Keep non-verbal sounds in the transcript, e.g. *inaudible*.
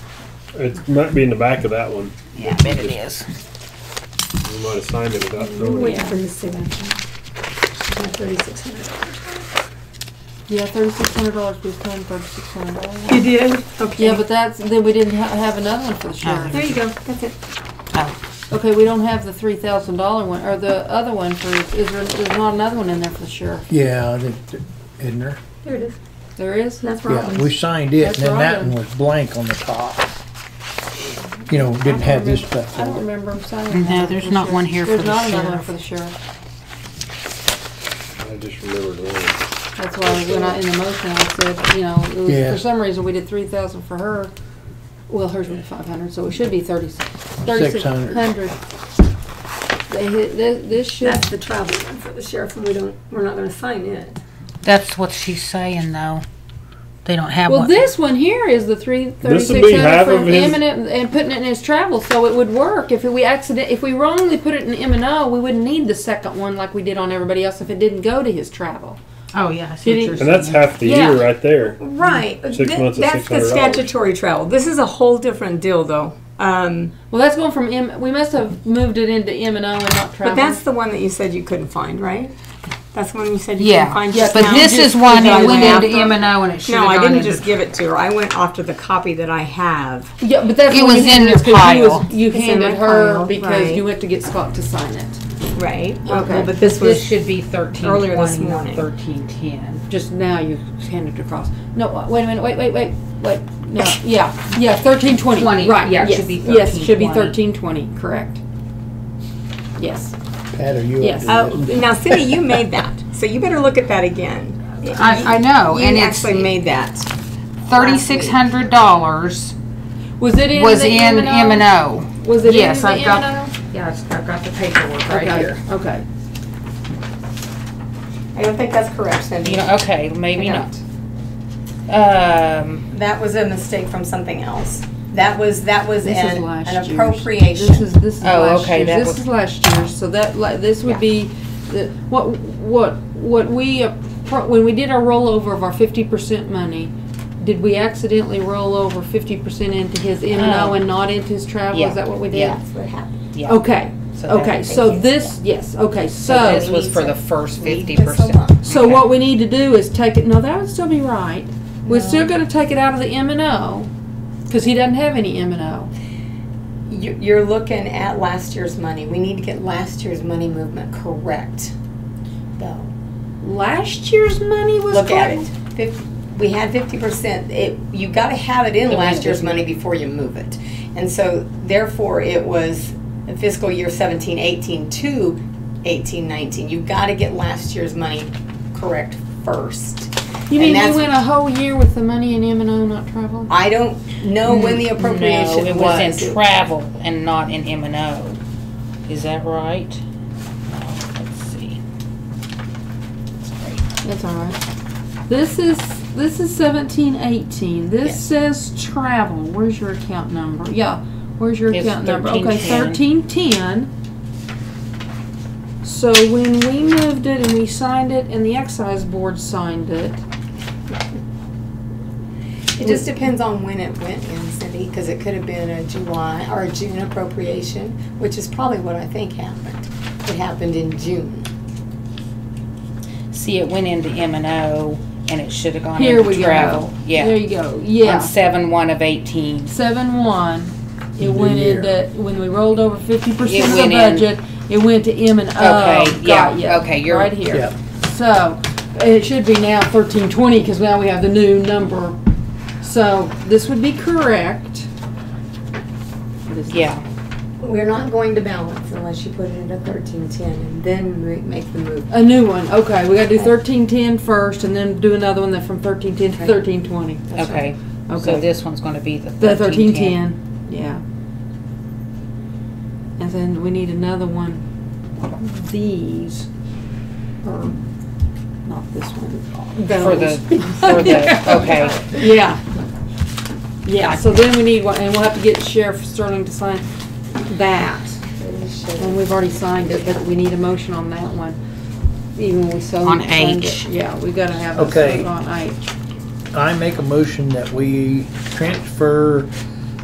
It might be in the back of that one. Yeah, I bet it is. We might have signed it without I'm knowing. waiting for you to see that. Thirty-six hundred. Yeah, thirty-six hundred dollars, we spent thirty-six hundred dollars. You did? Okay. Yeah, but that's, then we didn't ha- have another one for the sheriff. There you go, that's it. Oh, Okay, we don't have the three thousand dollar one, or the other one for, is there, there's not another one in there for the sheriff? Yeah, I think, th- isn't there? There it is. There is? That's Yeah, we Robin's. signed it, That's and then that Robin. one was blank on the top. You know, didn't have this stuff I don't on it. remember him signing No, that there's for not the one here sheriff. for the There's not another one sheriff. for the sheriff. I just remembered one. That's why when I, in the motion, I said, you know, it was, Yeah. for some reason, we did three thousand for her. Well, hers was five hundred, so it should be thirty-six, thirty-six 600. hundred. They hit, this, this should, That's the travel one for the sheriff, and we don't, we're not gonna sign it. that's what she's saying though. They don't have well, one. this one here is the three would thirty-six be half hundred from of his- eminent and putting it in his travel, so it would work. If we accident, if we wrongly put it in M and O, we wouldn't need the second one like we did on everybody else if it didn't go to his travel. oh yeah, I Did see he- what And you're that's saying. half the Yeah. year right there. Right. but Six thi- months is That's the $600. statutory travel. This is a whole different deal, though. Um, Well, that's going from M. We must have moved it into M and O and not travel. but that's the one that you said you couldn't find, right? That's the one you said you couldn't Yeah, find yeah, just but now? this is Just one because I that went went into M and after- O and it should No, I have gone didn't into. just give it to her. I went after the copy that I have. Yeah, but that's It was what you did in your is 'cause you was- pile. You It's in handed my her pile, because right. you went to get Scott to sign it. Right. Okay. Okay. But this This was, should be thirteen Earlier this twenty, not morning. thirteen ten. Just now you handed it across. No, wa- wait a minute, wait, wait, wait, wait, no, yeah, yeah, thirteen twenty, Twenty, right, yeah, it yes, should be yes, should be 13.20. thirteen twenty, correct. Yes, Pat, are you Yes. up oh, to this? now Cindy, you made that. So you better look at that again. I, I know, You and it's actually made that. thirty-six hundred dollars was it in was the in M and M&O? O. Was it in Yes, the I've got- M&O? Yeah, I've got the paperwork Okay, okay, I don't think that's correct, Cindy. You know, okay, maybe I not. Um, That was a mistake from something else. That was, that was This is an last an year's. appropriation. this is, this is Oh, last okay, year's, that this was- is last year's, so that, li- this would be, the- what, what, what we, appro- when we did our rollover of our fifty percent money, did we accidentally roll over fifty percent into his M and O Oh. and not into his travel, Yeah, is that what we did? yeah. That's what happened. yeah. Okay, So that- okay, so this, yes, okay, So this so, was for the first Leave fifty this percent. alone. so what we need to do is take it, no, that would still be right. We're still gonna take it out of the M and O, cause he doesn't have any M and O. You- You're looking at last year's money. We need to get last year's money movement correct, though. Last year's money was Look at it. correct? Fif- We had fifty percent. It, you gotta have it in The last rent year's is- money before you move it. And so therefore, it was fiscal year 17, 18 to 18, 19. You've gotta get last year's money correct first. You And mean we that's- went a whole year with the money in M and O not traveling? I don't know when the appropriation Mm, No, it was in travel and not in M and O. Is that right? No, Let's see. Sorry. That's all right. This is, this is seventeen eighteen. This Yes. says travel. Where's your account number? Yeah, where's your It's account number? Okay, 1310. thirteen ten. So when we moved it and we signed it and the excise board signed it, It just depends on when it went in, Cindy, because it could have been a July or a June appropriation, which is probably what I think happened. It happened in June. See, it went into M and O and it should have gone here we into go. travel. There Yeah. you go. On Yeah. seven one of eighteen. seven one. It The went year. into, when we rolled over fifty It percent of the went in. budget, it went to M and O. Okay, Got yeah, ya. okay, you're- Right here. Yeah. So, it should be now thirteen twenty, cause now we have the new number. So, this would be correct. What is this? Yeah. We're not going to balance unless you put it into thirteen ten and then ma- make the move. A new one, okay, we gotta do Okay. thirteen ten first and then do another one that from thirteen ten to Okay. thirteen twenty. Okay. So Okay, this one's gonna be the the thirteen thirteen ten. ten, yeah. And then we need another one, these, or, not this one. For the, those. *laughs* for the, okay. Yeah. Yeah, so then we need one, and we'll have to get Sheriff Sterling to sign that. And we've already signed it, but we need a motion on that one, even when we sold. On signed it. H. Yeah, we gotta have a Okay. vote on H. I make a motion that we transfer